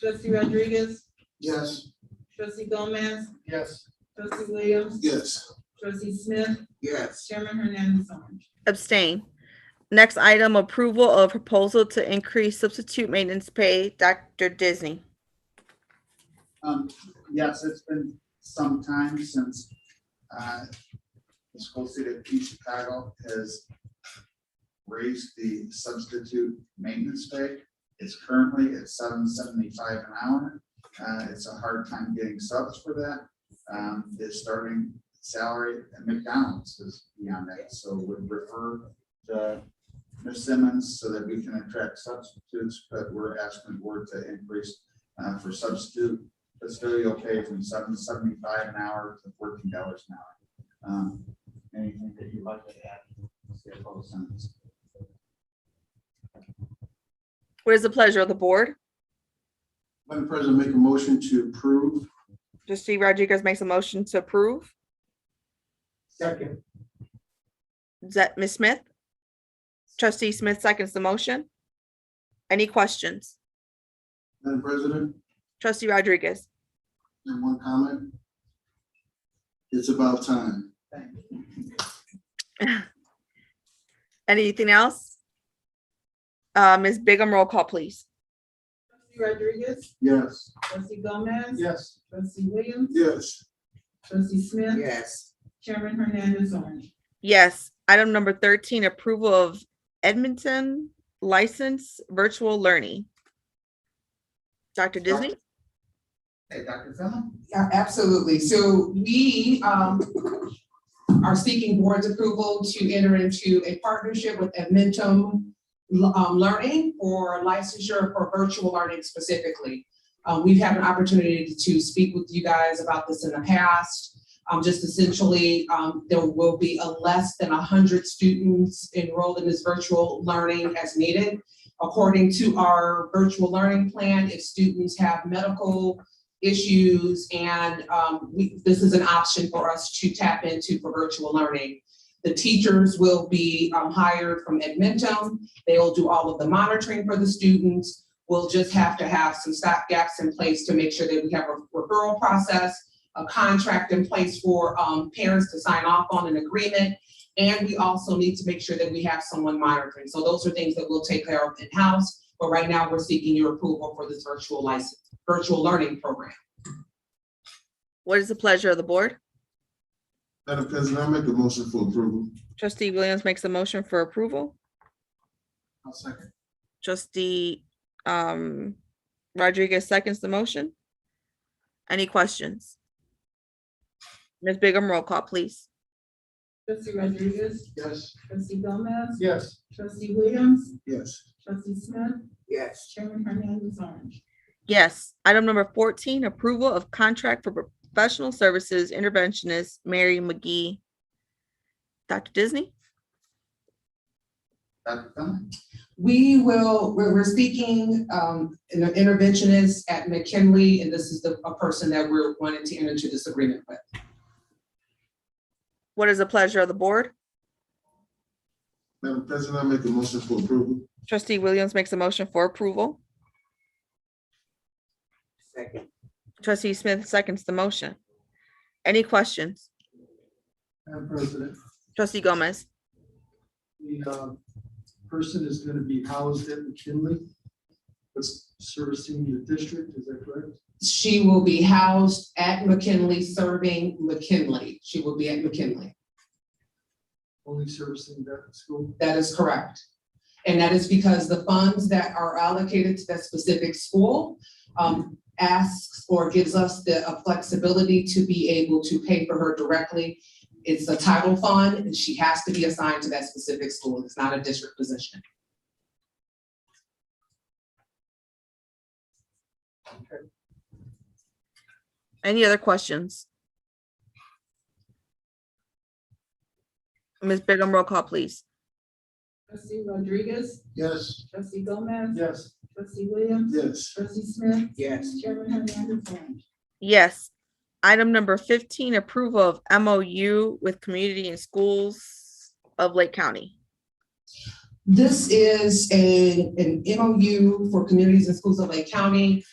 Trustee Rodriguez, Yes. trustee Gomez, Yes. trustee Williams, Yes. trustee Smith, Yes. chairman Hernandez on. Abstain. Next item, approval of proposal to increase substitute maintenance pay, Dr. Disney. Um, yes, it's been some time since, uh, the school city of East Chicago has raised the substitute maintenance pay. It's currently at seven seventy-five an hour. Uh, it's a hard time getting subs for that. Um, the starting salary at McDonald's is beyond that, so would refer to Ms. Simmons so that we can attract substitutes, but we're asking the board to increase, uh, for substitute that's very okay from seven seventy-five an hour to fourteen dollars an hour. Um, Anything that you'd like to add? CFO sentence. What is the pleasure of the board? Madam President, make a motion to approve. Trustee Rodriguez makes a motion to approve. Second. Is that Ms. Smith? Trustee Smith seconds the motion. Any questions? Madam President, Trustee Rodriguez, and one comment. It's about time. Thank you. anything else? Uh, Ms. Bigum, roll call, please. Trustee Rodriguez, Yes. trustee Gomez, Yes. trustee Williams, Yes. trustee Smith, Yes. chairman Hernandez on. Yes, item number thirteen, approval of Edmonton license virtual learning. Dr. Disney? Hey, Dr. Fillon? Yeah, absolutely. So we um are seeking board's approval to enter into a partnership with Edmentum um, Learning for licensure for virtual learning specifically. Um, we've had an opportunity to speak with you guys about this in the past. Um, just essentially, um, there will be a less than hundred students enrolled in this virtual learning as needed. According to our virtual learning plan, if students have medical issues and um, we, this is an option for us to tap into for virtual learning. The teachers will be um, hired from Edmentum. They will do all of the monitoring for the students. We'll just have to have some stop gaps in place to make sure that we have a referral process, a contract in place for um, parents to sign off on an agreement. And we also need to make sure that we have someone monitoring. So those are things that we'll take care of in-house. But right now, we're seeking your approval for this virtual license virtual learning program. What is the pleasure of the board? Madam President, I make a motion for approval. Trustee Williams makes a motion for approval. I'll second. Trustee um Rodriguez seconds the motion. Any questions? Ms. Bigum, roll call, please. Trustee Rodriguez, Yes. trustee Gomez, Yes. trustee Williams, Yes. trustee Smith, Yes. chairman Hernandez on. Yes, item number fourteen, approval of contract for professional services interventionist Mary McGee. Dr. Disney? Dr. Fillon? We will, we're, we're speaking, um, an interventionist at McKinley, and this is the, a person that we're wanting to enter into this agreement with. What is the pleasure of the board? Madam President, I make a motion for approval. Trustee Williams makes a motion for approval. Second, Trustee Smith seconds the motion. Any questions? Madam President, Trustee Gomez? the um, person is going to be housed at McKinley, but servicing the district, is that correct? She will be housed at McKinley, serving McKinley. She will be at McKinley. Only servicing that school? That is correct. And that is because the funds that are allocated to that specific school um, asks or gives us the uh, flexibility to be able to pay for her directly. It's a title fund and she has to be assigned to that specific school. It's not a district position. Any other questions? Ms. Bigum, roll call, please. Trustee Rodriguez, Yes. trustee Gomez, Yes. trustee Williams, Yes. trustee Smith, yes. chairman Hernandez on. Yes. Item number fifteen, approval of MOU with Community and Schools of Lake County. This is a, an MOU for communities and schools of Lake County.